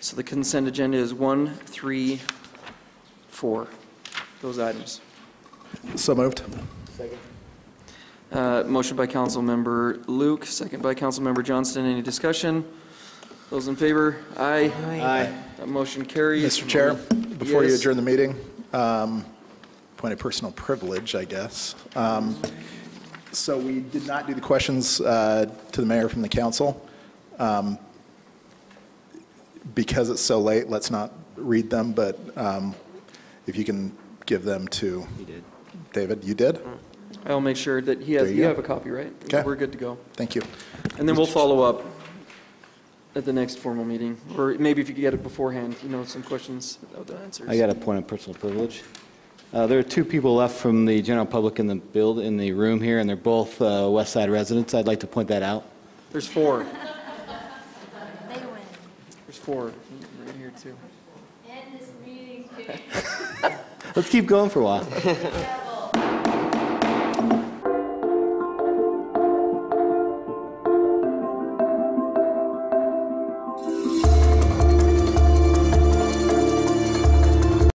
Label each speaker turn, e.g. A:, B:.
A: So the consent agenda is one, three, four, those items.
B: So moved.
A: Uh, Motion by Councilmember Luke, second by Councilmember Johnston. Any discussion? Those in favor? Aye. Aye. That motion carries.
B: Mr. Chair, before you
A: Yes.
B: adjourn the meeting, um, point of personal privilege, I guess. Um, So we did not do the questions uh, to the mayor from the council. Um, Because it's so late, let's not read them, but um, if you can give them to. David, you did?
A: I'll make sure that he has,
B: There you
A: you
B: go.
A: have a copy, right?
B: Okay.
A: We're good to go.
B: Thank you.
A: And then we'll follow up at the next formal meeting, or maybe if you could get it beforehand, you know, some questions without the answers.
C: I got a point of personal privilege. Uh, There are two people left from the general public in the build, in the room here, and they're both uh, West Side residents. I'd like to point that out.
A: There's four.
D: They win.
A: There's four right here, too.
D: End this meeting, please.
C: Let's keep going for a while.